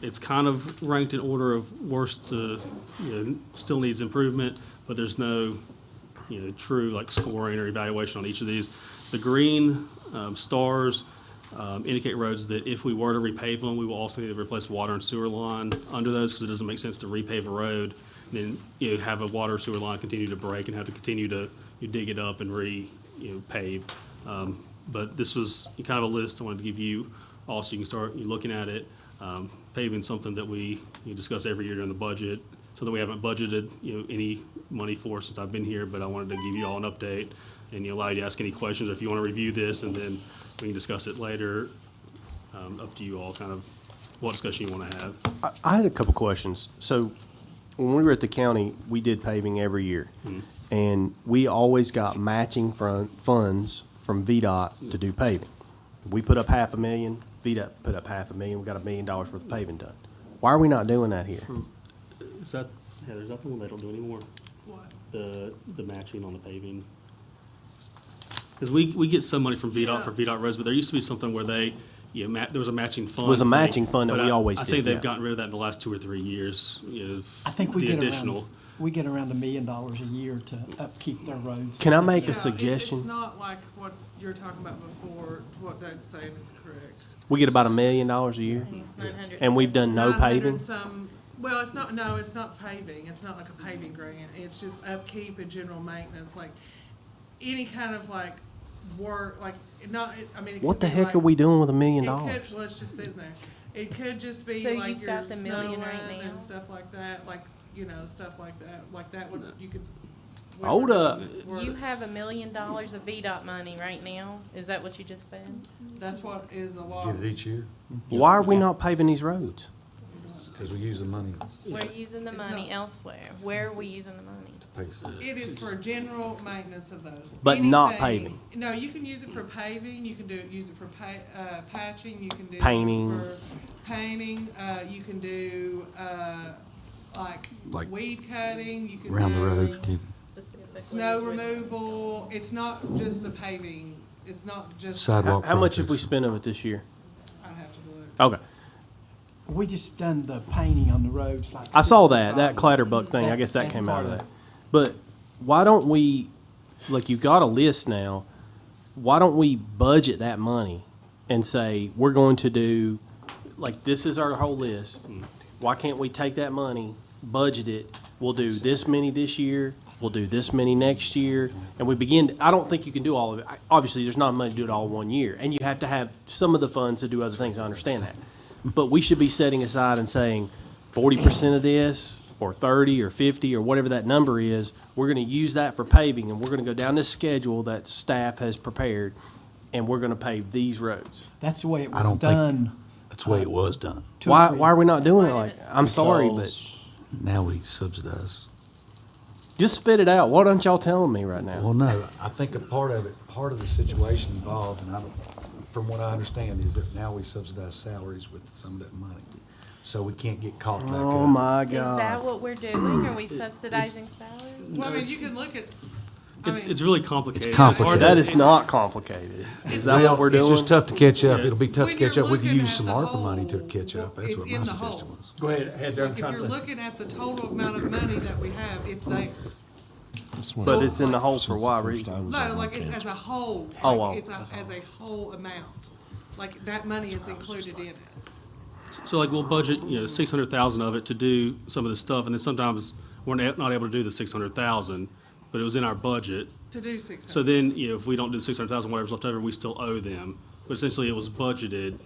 it's kind of ranked in order of worst to, you know, still needs improvement, but there's no, you know, true like scoring or evaluation on each of these. The green um, stars um, indicate roads that if we were to repave them, we will also need to replace water and sewer line under those because it doesn't make sense to repave a road and then, you know, have a water sewer line continue to break and have to continue to you dig it up and re, you know, pave. Um, But this was kind of a list I wanted to give you also you can start looking at it. Um, Paving something that we you know, discuss every year during the budget, so that we haven't budgeted, you know, any money for since I've been here, but I wanted to give you all an update and you allow you to ask any questions if you want to review this and then we can discuss it later. Um, Up to you all, kind of what discussion you want to have. I- I had a couple questions. So when we were at the county, we did paving every year. And we always got matching front funds from VDOT to do paving. We put up half a million, VDOT put up half a million, we got a million dollars worth of paving done. Why are we not doing that here? Is that, Heather, is that the one they don't do anymore? What? The, the matching on the paving? Because we, we get some money from VDOT for Yeah. VDOT roads, but there used to be something where they, you know, ma- there was a matching fund. Was a thing, matching fund that but we I- always I think did, they've yeah. gotten rid of that in the last two or three years, you know. I think we the get additional. around, we get around a million dollars a year to upkeep their roads. Can I make Yeah, a it's- It's suggestion? not like what you're talking about before, what Doug's saying is correct. We get about a million dollars a year and we've done no 900 paving? some- well, it's not, no, it's not paving, it's not like a paving grant, it's just upkeep and general maintenance, like, any kind of like work, like, not, I mean. it could What the be heck like- are we doing with a million It dollars? could, let's just sit there, it could just be So like you've your got the snow million right run now? and stuff like that, like, you know, stuff like that, like that would, you could. we Hold were- up. we're- You have a million dollars of VDOT money right now, is that what you just said? That's what is a lot. Get it each year, Why are we not paving these roads? because we use the money We're using the It's money not- elsewhere, where are we using the money? to pay some. It is for general maintenance of those. But not Anything- No, you can use it for paving, you can do, use it for pa- uh, patching, you can do. it Painting. for Painting, uh, you can do, uh, like Like weed cutting, you can do. Round the road, keep Specifically, Snow is what- removal, it's not just the paving, it's not just. How sidewalk. how much have we projects. spent of it this year? I'd have to look. Okay, We just done the painting on the roads like. I saw that, that 65. clatterbuck thing, I guess that That's came out of part of that. But why don't we, like, you've got a list now, why don't we budget that money and say, we're going to do, like, this is our whole list. Why can't we take that money, budget it, we'll do this many this year, we'll do this many next year, and we begin, I don't think you can do all of it. I- Obviously, there's not money to do it all one year, and you have to have some of the funds to do other things, I understand that. But we should be setting aside and saying, forty percent of this, or thirty, or fifty, or whatever that number is, we're gonna use that for paving, and we're gonna go down this schedule that staff has prepared, and we're gonna pave these roads. That's the way it I was don't think- done. That's the way it was done. two or Why, three- why are we not doing it Why like, did it- I'm sorry, but Now we subsidize. just spit it out, what aren't y'all telling me right now? Well, no, I think a part of it, part of the situation involved, and I don't, from what I understand, is that now we subsidize salaries with some of that money. So we can't get caught back up. Oh, my Is that God. what we're doing, are we subsidizing salaries? Well, I mean, you can look at, I It's, mean, it's really complicated. It's hard to- complicated. That is not complicated. Is that Well, what we're doing? It's just tough to catch up. Yeah. It'll be tough to When you're catch up. We could looking use at some the ARPA money to whole, catch up. That's it's what in my the suggestion hole. was. Go ahead, Heather, I'm like, if trying you're to listen. looking at the total amount of money that we have, it's there. But it's in the hole for why reason? No, like it's as a whole. Oh, like, oh, It's a- as a whole amount. Like that money is included in it. So like we'll budget, you know, six hundred thousand of it to do some of this stuff, and then sometimes we're not not able to do the six hundred thousand, but it was in our budget. To do six So hundred. then, you know, if we don't do the six hundred thousand, whatever's left over, we still owe them. But essentially, it was budgeted,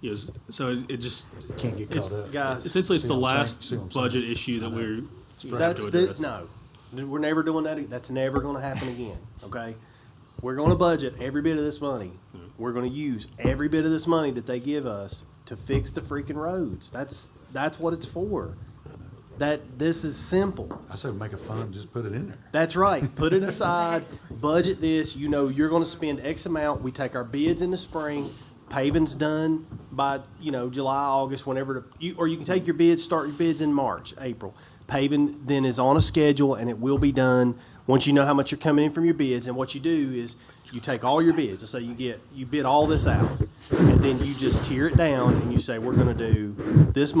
you know, s- so it- it just, Can't get it's- caught up. Guys, essentially, it's See the what I'm saying? last See what I'm saying? budget issue that we're. we're That's doing the, this. no, we're never doing that, e, that's never gonna happen again, okay? We're gonna budget every bit of this money, we're gonna use every bit of this money that they give us to fix the freaking roads, that's, that's what it's for. That, this is simple, I said make a fund, just put it in there. that's right, put it aside, budget this, you know, you're gonna spend X amount, we take our bids in the spring, paving's done by, you know, July, August, whenever, the- you, or you can take your bids, start your bids in March, April. Paving then is on a schedule and it will be done, once you know how much you're coming in from your bids, and what you do is you take all your bids, so you get, you bid all this out, and then you just tear it down and you say, we're gonna do this